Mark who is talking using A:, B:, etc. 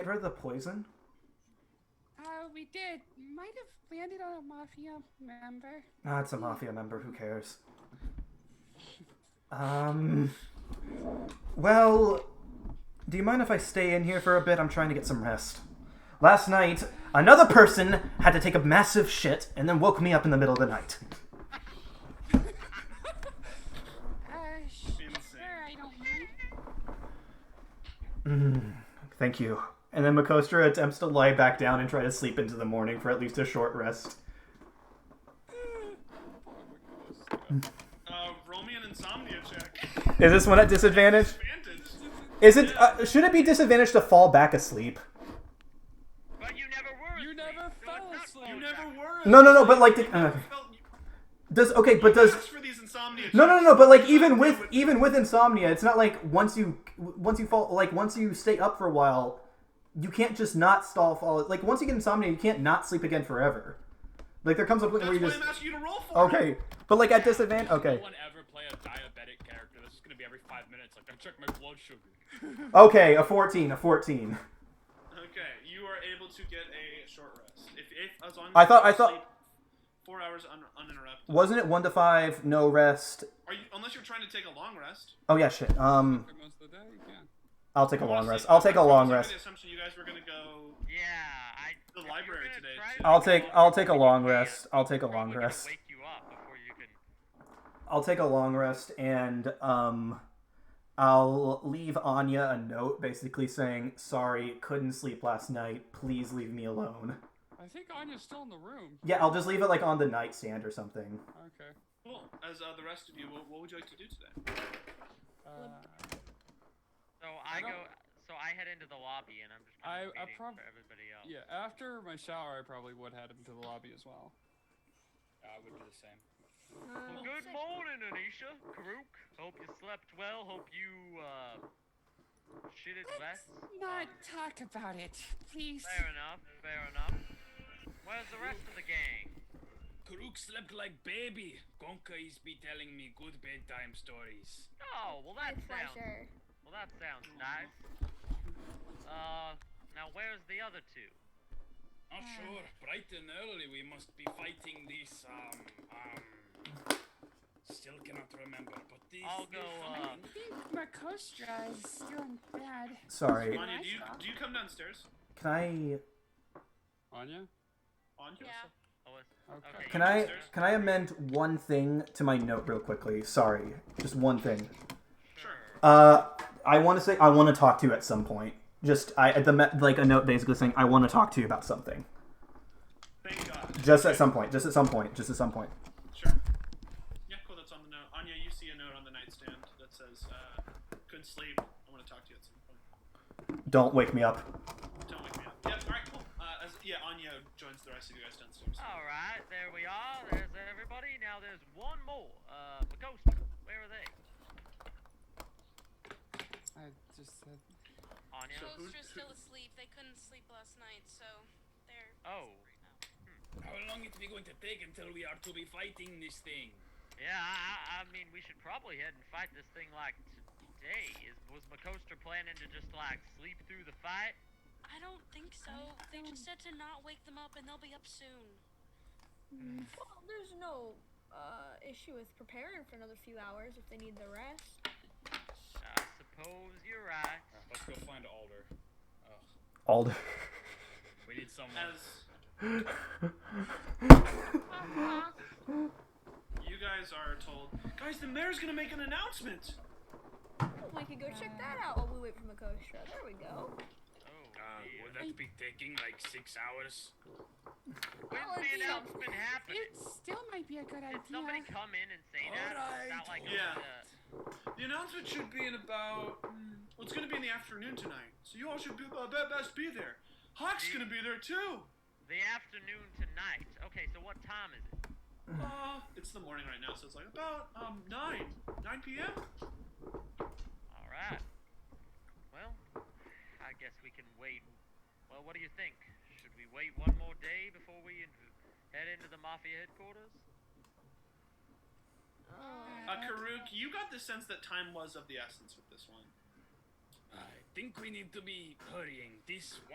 A: ever the poison?
B: Uh, we did. Might have landed on a mafia member.
A: Ah, it's a mafia member. Who cares? Um. Well, do you mind if I stay in here for a bit? I'm trying to get some rest. Last night, another person had to take a massive shit and then woke me up in the middle of the night.
B: Uh, sh- sure, I don't mind.
A: Thank you. And then Makostra attempts to lie back down and try to sleep into the morning for at least a short rest.
C: Uh, roll me an insomnia check.
A: Is this one at disadvantage?
C: Advantage.
A: Is it? Uh, should it be disadvantage to fall back asleep?
D: But you never were.
E: You never fell asleep.
C: You never were.
A: No, no, no. But like, the- uh,
C: You felt- you
A: does okay? But does
C: asked for these insomnia.
A: No, no, no, no. But like, even with even with insomnia, it's not like once you once you fall like once you stay up for a while, you can't just not stall fall. Like once you get insomnia, you can't not sleep again forever. Like there comes a point
C: That's
A: where you
C: why
A: just
C: I'm asking you to roll for it.
A: okay, but like at disadvantage. Okay,
E: No one ever play a diabetic character. This is gonna be every five minutes. Like I check my blood sugar.
A: okay, a fourteen, a fourteen.
C: Okay, you are able to get a short rest. If, if as long as
A: I
C: you
A: thought- I thought-
C: sleep four hours un- uninterrupted.
A: Wasn't it one to five, no rest?
C: Are you unless you're trying to take a long rest?
A: Oh yeah, shit. Um,
E: For most of the day, you can.
A: I'll take a long
C: Honestly,
A: rest. I'll take a
C: I'm
A: long
C: under
A: rest.
C: The assumption you guys were gonna go.
D: Yeah, I.
C: The
D: if
C: library
D: you're gonna
C: today,
D: try
C: too.
D: to
A: I'll
D: go
A: take
D: along
A: I'll
D: with
A: take
D: it,
A: a
D: you
A: long
D: can't.
A: rest. I'll take a
D: Probably
A: long
D: gonna
A: rest.
D: Wake you up before you can.
A: I'll take a long rest and um I'll leave Anya a note basically saying, "Sorry, couldn't sleep last night. Please leave me alone."
E: I think Anya's still in the room.
A: Yeah, I'll just leave it like on the nightstand or something.
E: Okay.
C: Cool. As uh, the rest of you, what, what would you like to do today?
E: Uh,
D: So I,
E: don't-
D: go. So I head into the lobby and I'm just.
E: I- I
D: Kind of waiting
E: prob-
D: for everybody else.
E: yeah. After my shower, I probably would head into the lobby as well. I would do the same.
B: Uh,
D: Well, good morning, Anisha. Karuk. Hope you slept well. Hope you uh shitted less.
B: Let's not talk about it, please.
D: Fair enough. Fair enough. Where's the rest of the gang?
E: Karuk slept like baby. Gonka is be telling me good bedtime stories.
D: Oh, well that
F: With
D: sounds.
F: pleasure.
D: Well that sounds nice. Uh, now where's the other two?
E: Not sure. Bright and early, we must be fighting this. Um, um. Still cannot remember, but this.
D: I'll go. Uh,
B: I think Makostra is still in bed.
A: Sorry.
C: Anya, do you do you come downstairs?
A: Can I
E: Anya.
C: Anya.
D: oh, it's-
E: Okay.
D: okay.
A: can I can I amend one thing to my note real quickly? Sorry. Just one thing. Uh I want to say I want to talk to you at some point. Just I the me- like a note basically saying I want to talk to you about something.
C: Thank God.
A: Just at some point. Just at some point. Just at some point.
C: Sure. Yeah, cool. That's on the note. Anya, you see a note on the nightstand that says, uh, "Couldn't sleep. I want to talk to you at some point."
A: Don't wake me up.
C: Don't wake me up. Yeah. All right. Cool. Uh, as, yeah, Anya joins the rest of you guys downstairs.
D: All right, there we are. There's everybody. Now there's one more. Uh, Magosta. Where are they?
E: I just said.
D: Anya.
C: So who-
G: Ghosts
C: who-
G: are still asleep. They couldn't sleep last night, so they're.
D: Oh, uh,
E: How long it be going to take until we are to be fighting this thing?
D: yeah. I, I, I mean, we should probably head and fight this thing like today. Is was Macosta planning to just like sleep through the fight?
G: I don't think so. They just said to not wake them up, and they'll be up soon.
F: Well, there's no uh, issue with preparing for another few hours if they need the rest.
D: I suppose you're right.
E: Let's go find Alder. Ugh,
A: Alder.
E: we need someone.
C: As you guys are told, guys, the mayor's gonna make an announcement.
F: We could go check that out while we wait for Makostra. There we go.
D: Oh,
E: Uh,
D: dear.
E: would that be taking like six hours?
D: When's
F: Well,
D: the
F: it's-
D: announcement happening?
B: It still might be a good
D: Did somebody
B: idea.
D: come in and say that? Or is that like
C: Yeah.
D: uh,
C: The announcement should be in about. mm, Well, it's gonna be in the afternoon tonight, so you all should be, uh, be- best be there. Hawk's gonna be there too.
D: the afternoon tonight? Okay, so what time is it?
C: Uh, it's the morning right now, so it's like about um nine, nine Uh, p.m.
D: All right. Well, I guess we can wait. Well, what do you think? Should we wait one more day before we in- head into the mafia headquarters?
C: Uh, Karuk, you got the sense that time was of the essence with this one.
E: I think we need to be hurrying. This